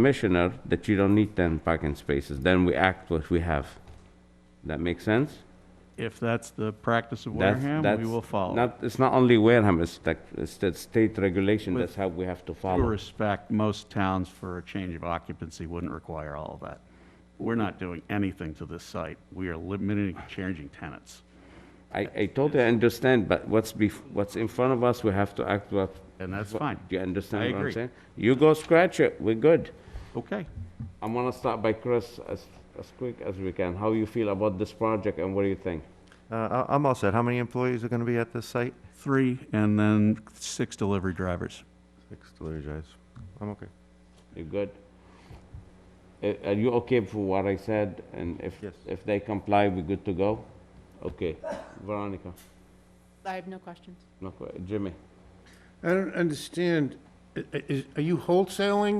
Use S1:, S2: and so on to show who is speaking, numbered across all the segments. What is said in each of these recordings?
S1: commissioner that you don't need 10 parking spaces. Then we act what we have. That makes sense?
S2: If that's the practice of
S1: That's-
S2: Wareham, we
S1: that's
S2: will follow.
S1: Not, it's not only Wareham, it's like, it's the state regulation,
S2: With
S1: that's how we have to
S2: Due
S1: follow.
S2: respect, most towns for a change of occupancy wouldn't require all of that. We're not doing anything to this site. We are limiting, changing tenants.
S1: I, I totally understand, but what's bef, what's in front of us, we have to act what.
S2: And that's
S1: what-
S2: fine.
S1: Do you
S2: I
S1: understand what I'm
S2: agree.
S1: saying? You go scratch it, we're good.
S2: Okay.
S1: I'm gonna start by Chris as, as quick as we can. How you feel about this project and what do you think?
S3: Uh, I- I'm all set. How many employees are going to be at this site?
S2: Three, and then six delivery drivers.
S3: Six delivery guys. I'm okay.
S1: You good? Uh, Are you okay for what I said? And if,
S3: Yes.
S1: if they comply, we good to go? Okay, Veronica,
S4: I have no questions.
S1: no que- Jimmy?
S5: I don't understand. I- I- is- Are you wholesaling?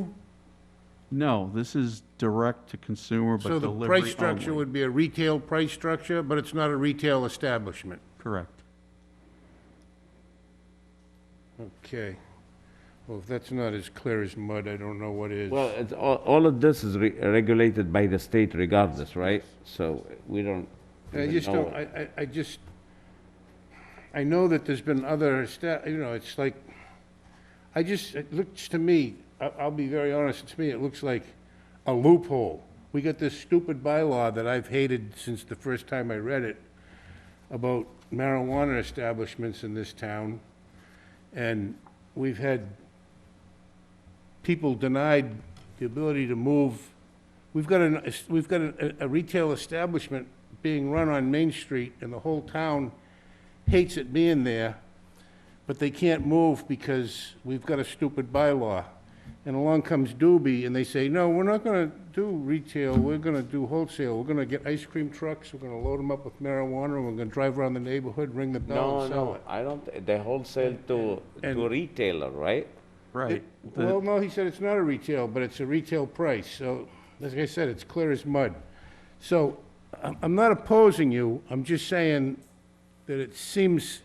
S2: No, this is direct to consumer, but
S5: So
S2: delivery
S5: the
S2: only.
S5: price structure would be a retail price structure, but it's not a retail establishment?
S2: Correct.
S5: Okay. Well, if that's not as clear as mud, I don't know what is.
S1: Well, it's, all, all of this is re- regulated by the state regardless, right? So we don't.
S5: I
S1: even
S5: just
S1: know.
S5: don't, I, I, I just, I know that there's been other sta, you know, it's like, I just, it looks to me, I, I'll be very honest, to me, it looks like a loophole. We got this stupid bylaw that I've hated since the first time I read it about marijuana establishments in this town. And we've had people denied the ability to move. We've got an, we've got a, a retail establishment being run on Main Street, and the whole town hates it being there, but they can't move because we've got a stupid bylaw. And along comes Doobie, and they say, no, we're not gonna do retail, we're gonna do wholesale, we're gonna get ice cream trucks, we're gonna load them up with marijuana, and we're gonna drive around the neighborhood, ring the bell
S1: No,
S5: and sell
S1: no,
S5: it.
S1: I don't, they wholesale to, to
S5: and-
S1: retailer, right?
S2: Right. The-
S5: Well, no, he said it's not a retail, but it's a retail price, so, as I said, it's clear as mud. So, I'm, I'm not opposing you, I'm just saying that it seems,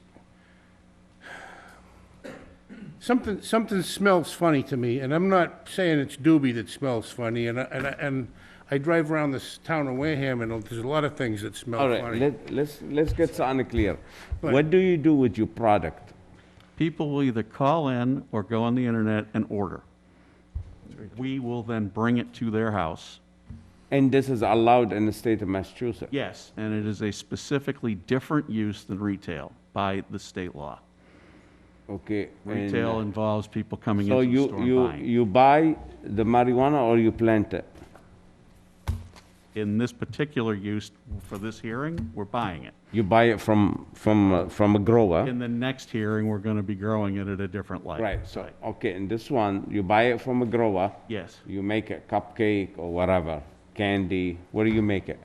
S5: something, something smells funny to me, and I'm not saying it's Doobie that smells funny, and, I- and, I- and I drive around this town of Wareham, and there's a lot of things that smell
S1: All right,
S5: funny.
S1: let, let's, let's get something clear.
S5: But-
S1: What do you do with your product?
S2: People will either call in or go on the internet and order. We will then bring it to their house.
S1: And this is allowed in the state of Massachusetts?
S2: Yes. And it is a specifically different use than retail by the state law.
S1: Okay. and,
S2: Retail involves people coming
S1: So
S2: into the
S1: you,
S2: store and
S1: you,
S2: buying.
S1: you buy the marijuana or you plant it?
S2: In this particular use for this hearing, we're buying it.
S1: You buy it from, from, uh, from a grower?
S2: In the next hearing, we're going to be growing it at a different light.
S1: Right, so, okay, and this one, you buy it from a grower?
S2: Yes.
S1: You make a cupcake or whatever, candy, what do you make it?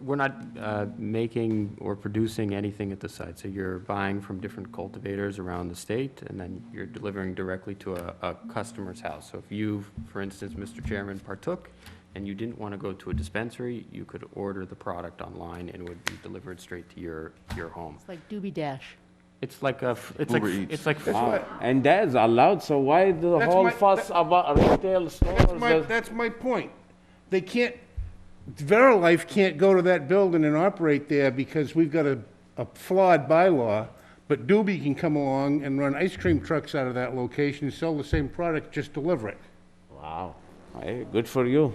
S6: We're not uh, making or producing anything at the site, so you're buying from different cultivators around the state, and then you're delivering directly to a, a customer's house. So if you, for instance, Mr. Chairman, partook, and you didn't want to go to a dispensary, you could order the product online and it would be delivered straight to your, your home.
S4: It's like Doobie Dash.
S6: It's like a, f- it's like,
S3: Uber Eats.
S6: it's like,
S1: Wow, And that is allowed, so why the
S5: That's
S1: whole
S5: my-
S1: fuss about retail
S5: That's my,
S1: stores?
S5: that's my point. They can't, Verilife can't go to that building and operate there because we've got a, a flawed bylaw, but Doobie can come along and run ice cream trucks out of that location, sell the same product, just deliver it.
S1: Wow, hey, good for you.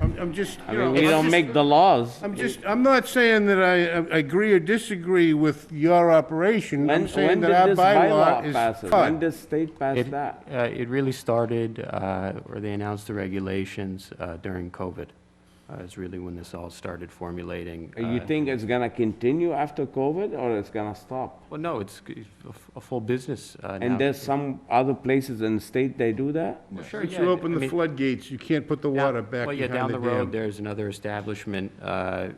S5: I'm, I'm just,
S1: I
S5: you know,
S1: mean, we
S5: I'm
S1: don't
S5: just-
S1: make the laws.
S5: I'm just, I'm not saying that I, I agree or disagree with your operation.
S1: When,
S5: I'm
S1: when
S5: saying
S1: did
S5: that our
S1: this bylaw
S5: bylaw
S1: pass?
S5: is
S1: it? When
S5: flawed.
S1: did state pass
S6: it, uh,
S1: that?
S6: it really started, uh, or they announced the regulations uh, during COVID, uh, is really when this all started formulating.
S1: Uh, You
S6: uh,
S1: think it's gonna continue after COVID or it's gonna stop?
S6: Well, no, it's g- a f- a full business uh, now.
S1: And there's some other places in the state they do that?
S6: Well, sure,
S5: Once
S6: yeah,
S5: you open
S6: I
S5: the
S6: mean,
S5: floodgates, you can't put the
S6: down-
S5: water back
S6: well, yeah,
S5: behind the dam.
S6: Down the road, there's another establishment uh,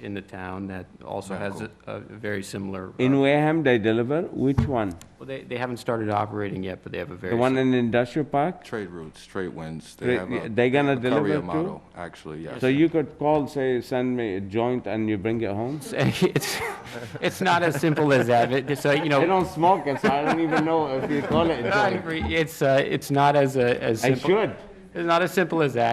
S6: in the town that also has a a very similar. uh,
S1: In Wareham, they deliver, which one?
S6: well, They they haven't started operating yet, but they have a very.
S1: The one in
S6: sim-
S1: Industrial Park?
S7: Trade routes, straight winds.
S1: Trade-
S7: They have a.
S1: they gonna
S7: a courier
S1: deliver too?
S7: model, Actually, yes.
S1: So you could call, say, send me a joint and you bring it home?
S6: It's it's not as simple as that, but so, you know.
S1: They don't smoke it, so I don't even know if you call it a
S6: I
S1: joint.
S6: agree. It's, uh, it's not as, a- as
S1: I
S6: simple.
S1: should.
S6: It's not as simple as that.